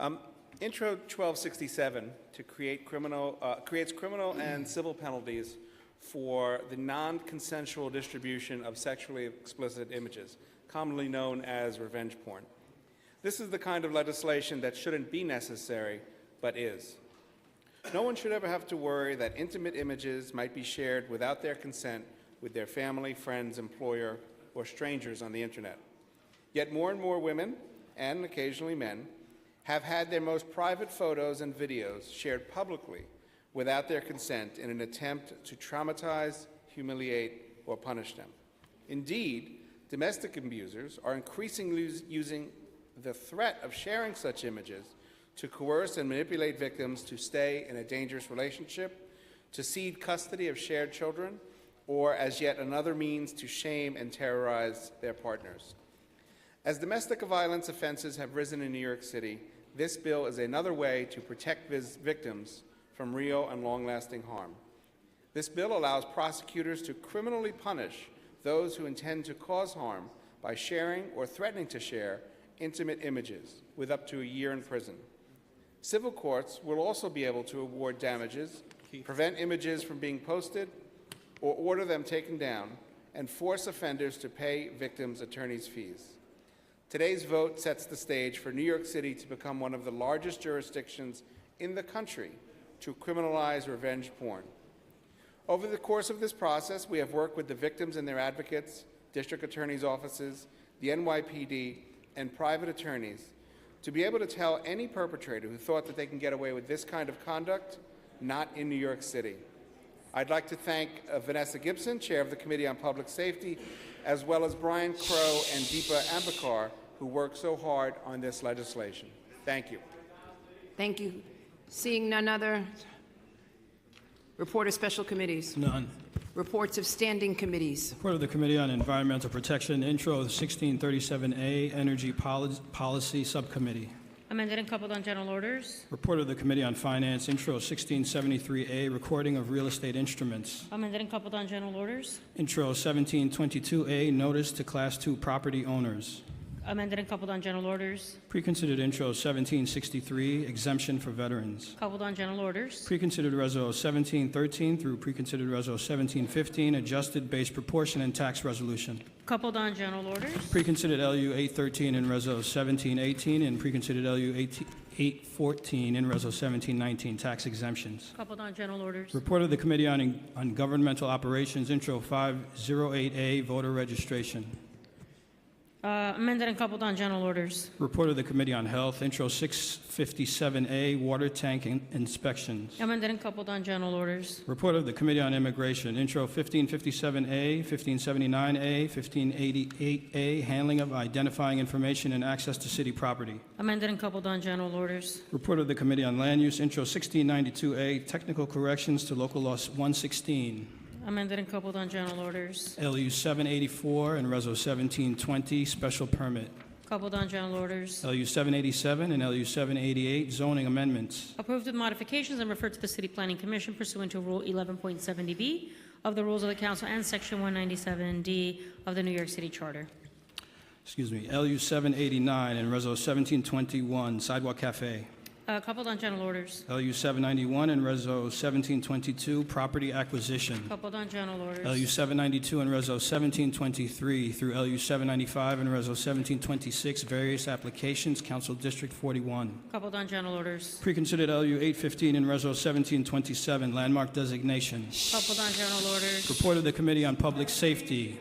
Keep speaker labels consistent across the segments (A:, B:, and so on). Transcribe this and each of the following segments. A: Um, Intro 1267 to create criminal, uh, creates criminal and civil penalties for the non-consensual distribution of sexually explicit images, commonly known as revenge porn. This is the kind of legislation that shouldn't be necessary, but is. No one should ever have to worry that intimate images might be shared without their consent with their family, friends, employer, or strangers on the internet. Yet more and more women, and occasionally men, have had their most private photos and videos shared publicly without their consent in an attempt to traumatize, humiliate, or punish them. Indeed, domestic abusers are increasingly us- using the threat of sharing such images to coerce and manipulate victims to stay in a dangerous relationship, to cede custody of shared children, or as yet another means to shame and terrorize their partners. As domestic violence offenses have risen in New York City, this bill is another way to protect vis- victims from real and long lasting harm. This bill allows prosecutors to criminally punish those who intend to cause harm by sharing or threatening to share intimate images with up to a year in prison. Civil courts will also be able to award damages, prevent images from being posted, or order them taken down, and force offenders to pay victims' attorneys' fees. Today's vote sets the stage for New York City to become one of the largest jurisdictions in the country to criminalize revenge porn. Over the course of this process, we have worked with the victims and their advocates, district attorneys' offices, the NYPD, and private attorneys to be able to tell any perpetrator who thought that they can get away with this kind of conduct, not in New York City. I'd like to thank uh, Vanessa Gibson, Chair of the Committee on Public Safety, as well as Brian Crow and Deepa Ambikar, who worked so hard on this legislation. Thank you.
B: Thank you. Seeing none other, report of special committees,
C: None.
B: reports of standing committees,
C: Report of the Committee on Environmental Protection, intro of 1637A, Energy Poli- Policy Subcommittee.
D: Amended and coupled on general orders.
C: Report of the Committee on Finance, intro of 1673A, Recording of Real Estate Instruments.
D: Amended and coupled on general orders.
C: Intro of 1722A, Notice to Class II Property Owners.
D: Amended and coupled on general orders.
C: Preconsidered intro of 1763, Exemption for Veterans.
D: Coupled on general orders.
C: Preconsidered Reso 1713 through Preconsidered Reso 1715, Adjusted Base Proportion and Tax Resolution.
D: Coupled on general orders.
C: Preconsidered LU 813 and Reso 1718 and preconsidered LU 18 814 and Reso 1719 tax exemptions.
D: Coupled on general orders.
C: Report of the Committee on on Governmental Operations, Intro 508A, voter registration.
D: Uh, Amended and coupled on general orders.
C: Report of the Committee on Health, Intro 657A, water tank in- inspections.
D: Amended and coupled on general orders.
C: Report of the Committee on Immigration, Intro 1557A, 1579A, 1588A, handling of identifying information and access to city property.
D: Amended and coupled on general orders.
C: Report of the Committee on Land Use, Intro 1692A, Technical Corrections to Local Law 116,
D: Amended and coupled on general orders.
C: LU 784, and Reso 1720, Special Permit,
D: Coupled on general orders.
C: LU 787 and LU 788, Zoning Amendments.
D: Approved with modifications and referred to the City Planning Commission pursuant to Rule 11.70B of the Rules of the Council and Section 197D of the New York City Charter.
C: Excuse me, LU 789 and Reso 1721, Sidewalk Cafe,
D: Uh, Coupled on general orders.
C: LU 791 and Reso 1722, Property Acquisition,
D: Coupled on general orders.
C: LU 792 and Reso 1723 through LU 795 and Reso 1726, various applications, Council District 41.
D: Coupled on general orders.
C: Preconsidered LU 815 and Reso 1727, landmark designation.
D: Coupled on general orders.
C: Report of the Committee on Public Safety.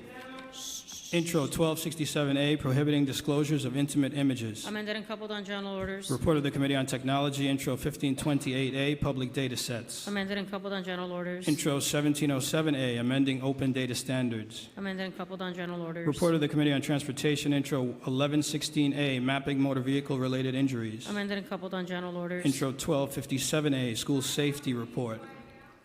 C: Intro 1267A, prohibiting disclosures of intimate images.
D: Amended and coupled on general orders.
C: Report of the Committee on Technology, Intro 1528A, public data sets.
D: Amended and coupled on general orders.
C: Intro 1707A, amending open data standards.
D: Amended and coupled on general orders.
C: Report of the Committee on Transportation, Intro 1116A, mapping motor vehicle-related injuries.
D: Amended and coupled on general orders.
C: Intro 1257A, school safety report.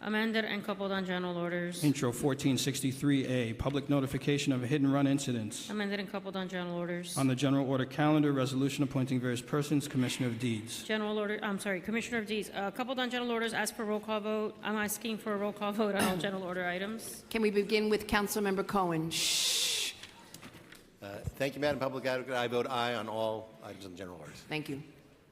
D: Amended and coupled on general orders.
C: Intro 1463A, public notification of hit and run incidents.
D: Amended and coupled on general orders.
C: On the general order calendar, resolution appointing various persons, Commissioner of Deeds.
D: General order, I'm sorry, Commissioner of D's, uh, coupled on general orders, as per roll call vote. I'm asking for a roll call vote on all general order items.
B: can we begin with Councilmember Cohen?
E: Uh, Thank you, Madam Public Advocate. I vote aye on all items in general orders.
B: Thank you.